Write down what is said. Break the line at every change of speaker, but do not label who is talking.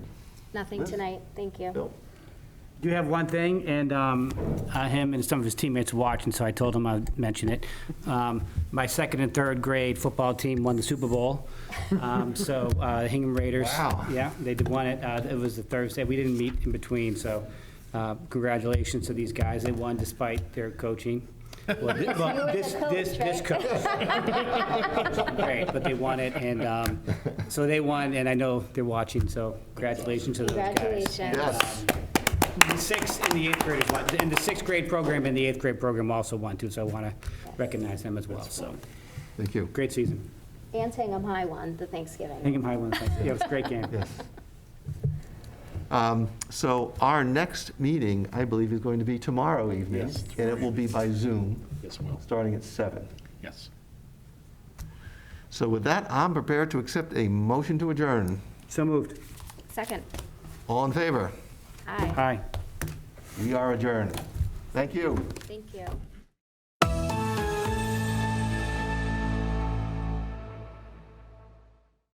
Nothing tonight, thank you.
Bill?
Do have one thing, and um, uh, him and some of his teammates watching, so I told him I'd mention it. Um, My second and third grade football team won the Super Bowl. Um, So uh, Hingham Raiders.
Wow.
Yeah, they did won it. Uh, It was the Thursday. We didn't meet in between, so uh, congratulations to these guys. They won despite their coaching. Well, thi- well,
the
this- this-
coach,
This coach. Great, but they won it, and um, so they won, and I know they're watching, so congratulations to those guys.
Congratulations.
Yes.
The sixth and the eighth grade is one, and the sixth grade program and the eighth grade program also won too, so I want to recognize them as well, so,
Thank you.
great season.
And Hingham High won the Thanksgiving.
Hingham High won, thank you. yeah, it was a great game.
Um, So our next meeting, I believe, is going to be tomorrow evening.
Yes.
And it will be by Zoom,
Yes, it will.
starting at seven.
Yes.
So with that, I'm prepared to accept a motion to adjourn.
So moved.
Second,
All in favor?
aye,
Hi.
We are adjourned. Thank you.
thank you.